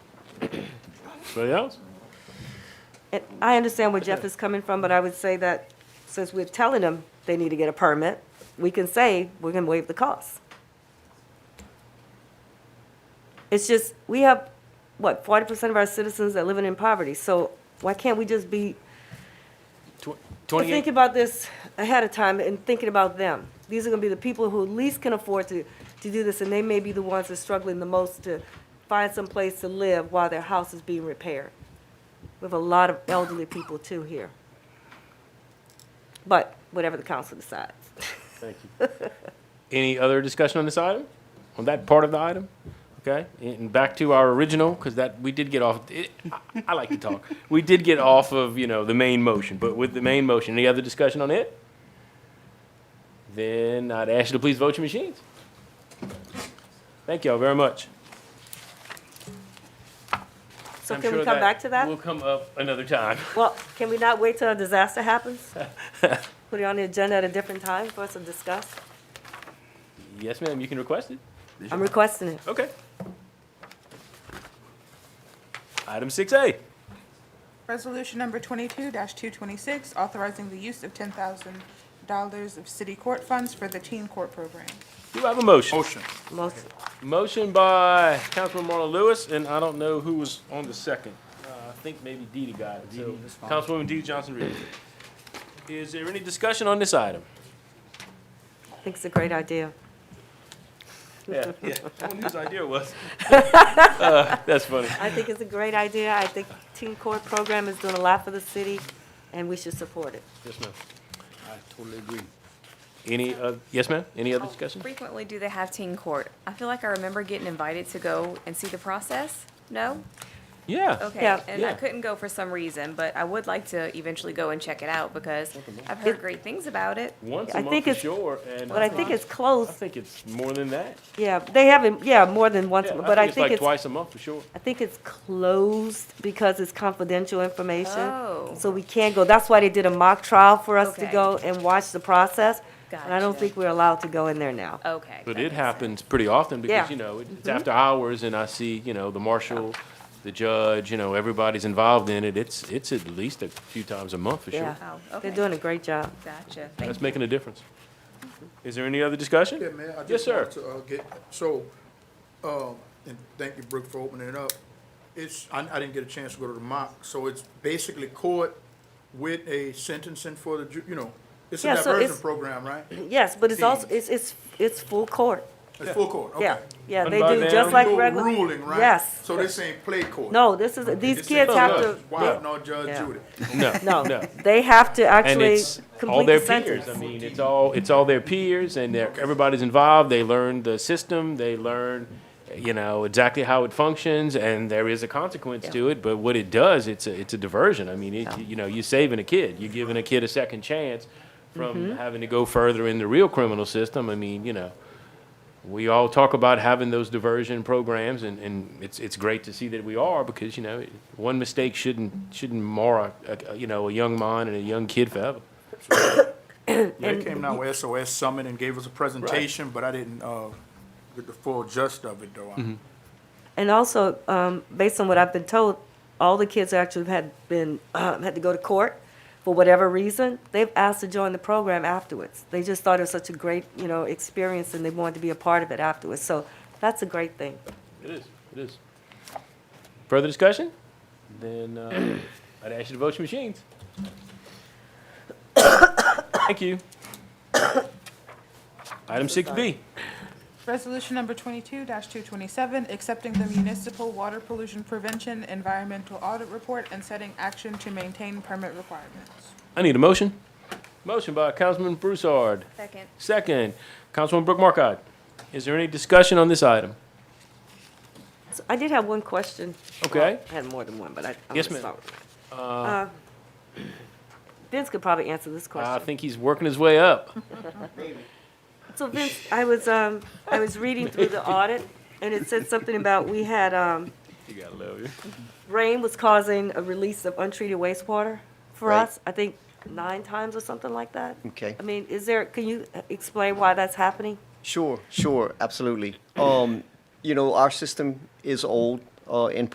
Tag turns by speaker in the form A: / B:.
A: Anybody else?
B: And I understand where Jeff is coming from, but I would say that since we're telling them they need to get a permit, we can say we're gonna waive the cost. It's just, we have, what, forty percent of our citizens that living in poverty, so why can't we just be But think
C: Twenty-eight,
B: about this ahead of time and thinking about them. These are gonna be the people who least can afford to, to do this, and they may be the ones that are struggling the most to find some place to live while their house is being repaired. We have a lot of elderly people too here. But whatever the council decides.
A: Thank you. Any other discussion on this item? On that part of the item? Okay, and back to our original, because that, we did get off, it- I- I like to talk. We did get off of, you know, the main motion, but with the main motion, any other discussion on it? Then I'd ask you to please vote your machines. Thank y'all very much.
B: So
A: I'm
B: can we
A: sure
B: come back to
A: We'll
B: that?
A: come up another time.
B: Well, can we not wait till a disaster happens? Put it on the agenda at a different time for us to discuss?
A: Yes, ma'am, you can request it.
B: I'm requesting it.
A: Okay. Item six A.
D: Resolution number twenty-two two twenty-six, authorizing the use of ten thousand dollars of city court funds for the teen court program.
A: Do I have a motion?
E: Motion.
B: Most,
A: Motion by Councilman Marlon Lewis, and I don't know who was on the second. Uh, I think maybe Dee Dee got it. So, Councilwoman Dee Dee Johnson Reed. Is there any discussion on this item?
B: I think it's a great idea.
A: Yeah, yeah. I wonder whose idea it was. Uh, That's funny.
B: I think it's a great idea. I think Teen Court Program is doing a lot for the city, and we should support it.
A: Yes, ma'am.
E: I totally agree.
A: Any, uh, yes, ma'am? Any other
B: Oh,
A: discussion?
F: Frequently do they have teen court? I feel like I remember getting invited to go and see the process. No?
A: Yeah.
F: Okay.
B: Yeah.
F: And
A: Yeah.
F: I couldn't go for some reason, but I would like to eventually go and check it out because I've heard great things about it.
A: Once
B: I
A: a month
B: think
A: for
B: it's-
A: sure, and.
B: But I think it's close,
A: I think it's more than that.
B: yeah, they haven't, yeah, more than once,
A: Yeah,
B: but I think
A: like
B: it's,
A: twice a month for sure.
B: I think it's closed because it's confidential
F: Oh.
B: information. So we can't go, that's why they did a mock trial for us to
F: Okay.
B: go and watch the process. And I don't
F: Gotcha.
B: think we're allowed to go in there now.
F: Okay.
A: But
F: that
A: it
F: makes sense.
A: happens pretty often
B: Yeah. Mm-hmm.
A: because, you know, it- it's after hours and I see, you know, the marshal, the judge, you know, everybody's involved in it. It's, it's at least a few times a month for
B: Yeah,
A: sure.
F: Oh,
B: they're
F: okay.
B: doing a great job.
F: Gotcha. Thank
A: That's
F: you.
A: making a difference. Is there any other discussion?
E: Yeah, man, I
A: Yes,
E: just
A: sir.
E: wanted to, uh, get, so, um, and thank you, Brooke, for opening it up. It's, I, I didn't get a chance to go to the mock, so it's basically court with a sentencing for the, ju- you know, it's a
B: Yeah, so
E: diversion
B: it's-
E: program, right?
B: Yes, but it's also, it's, it's, it's full court.
E: It's full court, okay.
B: Yeah, yeah,
A: Run
B: they
A: by
B: do,
A: them.
B: just
A: You
B: like
E: Do a
B: regular.
E: Ruling, right?
B: Yes.
E: So this ain't play court.
B: No, this is, these kids have to.
E: Wow, no, Judge
B: Yeah.
E: Judy.
A: No,
B: No,
A: no.
B: they have to
A: And
B: actually
A: it's all
B: complete
A: their
B: the
A: peers. I
B: sentence.
A: mean, it's all, it's all their peers and they're, everybody's involved. They learn the system. They learn, you know, exactly how it functions and there is a consequence to it. But what it does, it's a, it's a diversion. I mean, it, you know, you're saving a kid. You're giving a kid a second chance
B: Mm-hmm.
A: from having to go further in the real criminal system. I mean, you know, we all talk about having those diversion programs and, and it's, it's great to see that we are because, you know, one mistake shouldn't, shouldn't mar, a, a- you know, a young mind and a young kid forever.
E: They came down with SOS Summit and gave us a presentation, but I didn't, uh, get the full gist of it,
A: Mm-hmm.
E: though. I-
B: And also, um, based on what I've been told, all the kids actually had been, um, had to go to court for whatever reason. They've asked to join the program afterwards. They just thought it was such a great, you know, experience and they wanted to be a part of it afterwards. So that's a great thing.
A: It is, it is. Further discussion? Then uh, I'd ask you to vote your machines. Thank you. Item six B.
D: Resolution number twenty-two two twenty-seven, accepting the municipal water pollution prevention environmental audit report and setting action to maintain permit requirements.
A: I need a motion. Motion by Councilman Broussard,
F: Second.
A: second. Councilman Brooke Markcott. Is there any discussion on this item?
B: So I did have one question.
A: Okay.
B: I had more than one, but I, I'm
A: Yes,
B: gonna
A: ma'am.
B: start with that. Uh, Vince could probably answer this question.
A: I think he's working his way up.
B: So Vince, I was, um, I was reading through the audit, and it said something about we had, um,
A: You gotta love you.
B: rain was causing a release of untreated wastewater for
G: Right.
B: us, I think nine times or something like that.
G: Okay.
B: I mean, is there, can you uh, explain why that's happening?
G: Sure, sure, absolutely. Um, you know, our system is old uh, in